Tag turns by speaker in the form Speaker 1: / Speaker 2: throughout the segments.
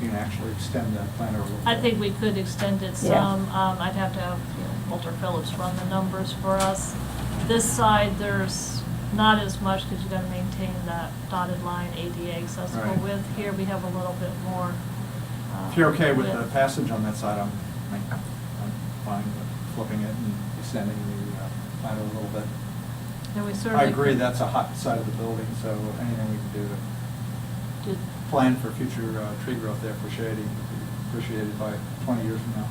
Speaker 1: you can actually extend that planner a little.
Speaker 2: I
Speaker 1: bit.
Speaker 2: think we could extend it
Speaker 3: Yeah.
Speaker 2: some. Um, I'd have to have you know, Walter Phillips run the numbers for us. This side, there's not as much because you gotta maintain that dotted line ADA accessible
Speaker 1: Right.
Speaker 2: width. Here, we have a little bit more. uh,
Speaker 1: If you're okay with the
Speaker 2: width.
Speaker 1: passage on that side, I'm, I'm fine with flipping it and extending the uh, planner a little bit.
Speaker 2: And we certainly.
Speaker 1: I agree,
Speaker 2: could
Speaker 1: that's a hot side of the building, so anything we can do to
Speaker 2: do-
Speaker 1: plan for future uh, tree growth there for shading, would be appreciated by 20 years from now.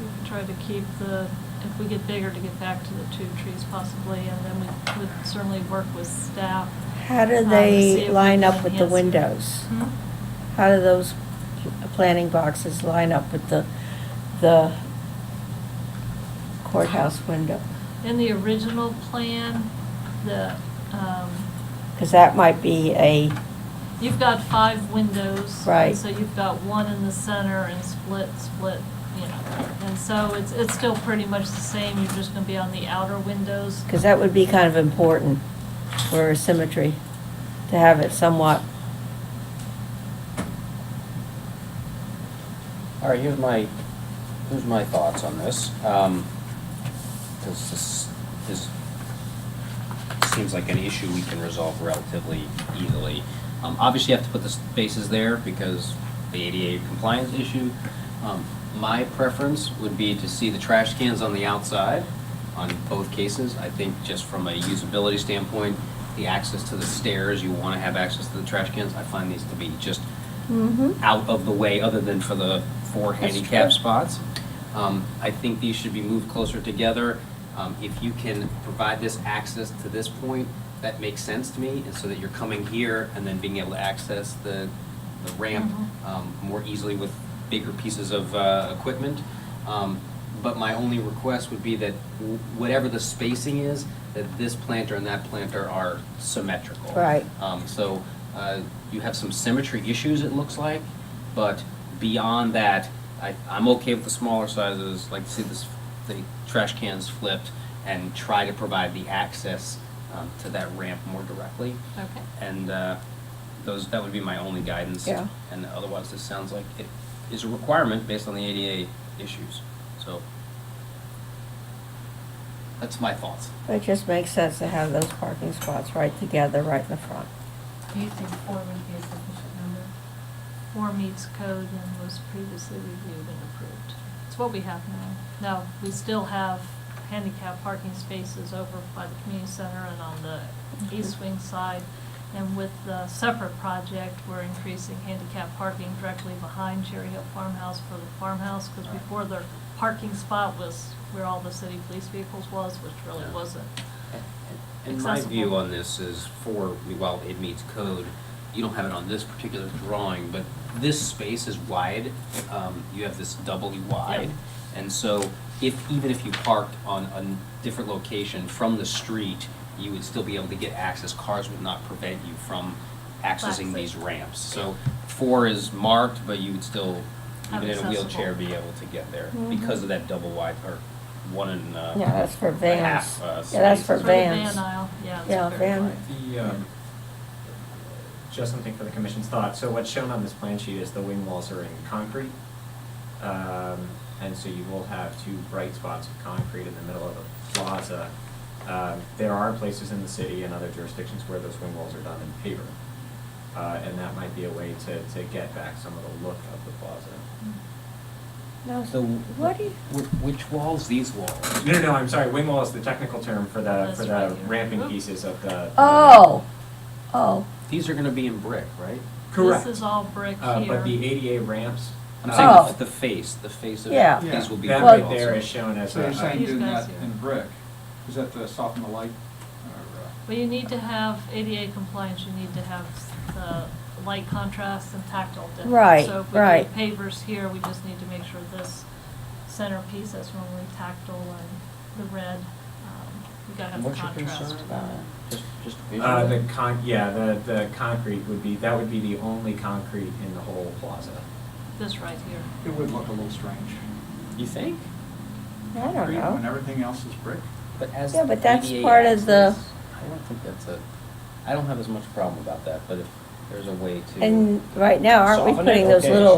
Speaker 2: we could Try to keep the, if we get bigger, to get back to the two trees possibly, and then we would certainly work with staff.
Speaker 3: How
Speaker 2: uh,
Speaker 3: do
Speaker 2: to see if
Speaker 3: they
Speaker 2: we
Speaker 3: line
Speaker 2: can
Speaker 3: up with the
Speaker 2: enhance-
Speaker 3: windows?
Speaker 2: Hmm?
Speaker 3: How do those pl- planning boxes line up with the, the courthouse window?
Speaker 2: In the original plan, the, um,
Speaker 3: Because that might be a,
Speaker 2: you've got five windows.
Speaker 3: Right.
Speaker 2: So you've got one in the center and split, split, you know, and so it's, it's still pretty much the same, you're just gonna be on the outer windows.
Speaker 3: because that would be kind of important for symmetry, to have it somewhat,
Speaker 4: All right, here's my, here's my thoughts on this. Um, This is, this seems like an issue we can resolve relatively easily. Um, Obviously, you have to put the spaces there because the ADA compliance issue. Um, My preference would be to see the trash cans on the outside on both cases. I think just from a usability standpoint, the access to the stairs, you want to have access to the trash cans. I find these to be just
Speaker 3: Mm-hmm.
Speaker 4: out of the way, other than for the four
Speaker 3: That's
Speaker 4: handicap
Speaker 3: true.
Speaker 4: spots. Um, I think these should be moved closer together. Um, If you can provide this access to this point, that makes sense to me, and so that you're coming here and then being able to access the the ramp
Speaker 3: Mm-hmm.
Speaker 4: um, more easily with bigger pieces of uh, equipment. Um, But my only request would be that w- whatever the spacing is, that this planter and that planter are symmetrical.
Speaker 3: Right.
Speaker 4: Um, So uh, you have some symmetry issues, it looks like, but beyond that, I, I'm okay with the smaller sizes, like to see this, the trash cans flipped and try to provide the access um, to that ramp more directly.
Speaker 2: Okay.
Speaker 4: And uh, those, that would be my only guidance.
Speaker 3: Yeah.
Speaker 4: And otherwise, this sounds like it is a requirement based on the ADA issues. So that's my thoughts.
Speaker 3: it just makes sense to have those parking spots right together, right in the front.
Speaker 5: Do you think four would be a sufficient number?
Speaker 2: Four meets code and was previously reviewed and approved. It's what we have now. Now, we still have handicap parking spaces over by the community center and on the east wing side. And with the separate project, we're increasing handicap parking directly behind Cherry Hill Farmhouse for the farmhouse. Because
Speaker 4: Right.
Speaker 2: before their parking spot was where all the city police vehicles was, which really
Speaker 4: Yeah.
Speaker 2: wasn't.
Speaker 4: And my view
Speaker 2: accessible.
Speaker 4: on this is for, while it meets code, you don't have it on this particular drawing, but this space is wide. Um, you have this doubly wide. And so if, even if you parked on a different location from the street, you would still be able to get access. Cars would not prevent you from accessing these
Speaker 2: Access.
Speaker 4: ramps. So four is marked, but you would still,
Speaker 2: Have
Speaker 4: even in a wheelchair,
Speaker 2: accessible.
Speaker 4: be able to get there because of that double wide or one and, uh.
Speaker 3: Yeah, that's for
Speaker 4: a half,
Speaker 3: vans.
Speaker 4: uh,
Speaker 3: Yeah, that's
Speaker 4: space.
Speaker 3: for
Speaker 2: It's where the
Speaker 3: vans.
Speaker 2: Van uh, aisle, yeah. it's
Speaker 3: Yeah,
Speaker 2: very
Speaker 3: van-
Speaker 2: wide.
Speaker 6: The, um, just something for the commission's thought, so what's shown on this plan sheet is the wing walls are in concrete. Um, and so you will have two bright spots of concrete in the middle of the plaza. Um, there are places in the city and other jurisdictions where those wing walls are done in paper. Uh, and that might be a way to, to get back some of the look of the plaza.
Speaker 3: No,
Speaker 4: So,
Speaker 3: what do you?
Speaker 4: wh- which walls? These walls.
Speaker 6: No, no, no, I'm sorry, wing wall is the technical term for the,
Speaker 2: That's
Speaker 6: for
Speaker 2: right
Speaker 6: the
Speaker 2: here.
Speaker 6: ramping
Speaker 2: Oop.
Speaker 6: pieces of the.
Speaker 3: Oh, oh,
Speaker 4: These are gonna be in brick, right?
Speaker 6: Correct.
Speaker 2: This is all brick here.
Speaker 6: Uh, but the ADA ramps.
Speaker 4: I'm
Speaker 6: uh,
Speaker 4: saying
Speaker 3: Oh.
Speaker 4: the- the face, the face of
Speaker 3: Yeah.
Speaker 4: it. These will be brick
Speaker 6: That
Speaker 3: Well-
Speaker 6: right
Speaker 4: also.
Speaker 6: there is shown as
Speaker 1: So
Speaker 6: a,
Speaker 1: you're saying
Speaker 2: These
Speaker 1: doing
Speaker 2: guys
Speaker 1: that
Speaker 2: here.
Speaker 1: in brick, is that to soften the light? or, uh,
Speaker 2: Well, you need to have ADA compliance, you need to have the light contrast and tactile difference.
Speaker 3: Right,
Speaker 2: So if
Speaker 3: right.
Speaker 2: we do pavers here, we just need to make sure this centerpiece is normally tactile and the red, um, we gotta have the
Speaker 4: What's your
Speaker 2: contrast.
Speaker 4: concern about it? Just, just
Speaker 6: uh, the
Speaker 4: visually?
Speaker 6: con, yeah, the, the concrete would be, that would be the only concrete in the whole plaza.
Speaker 2: This right here.
Speaker 1: It would look a little strange.
Speaker 4: You think?
Speaker 3: I don't
Speaker 1: Concrete When
Speaker 3: know.
Speaker 1: everything else is brick.
Speaker 4: But as.
Speaker 3: Yeah, but that's
Speaker 4: ADA
Speaker 3: part of the-
Speaker 4: access, I don't think that's a, I don't have as much problem about that, but if there's a way to.
Speaker 3: And right now, aren't we
Speaker 4: soften it?
Speaker 3: putting those
Speaker 4: Okay.
Speaker 3: little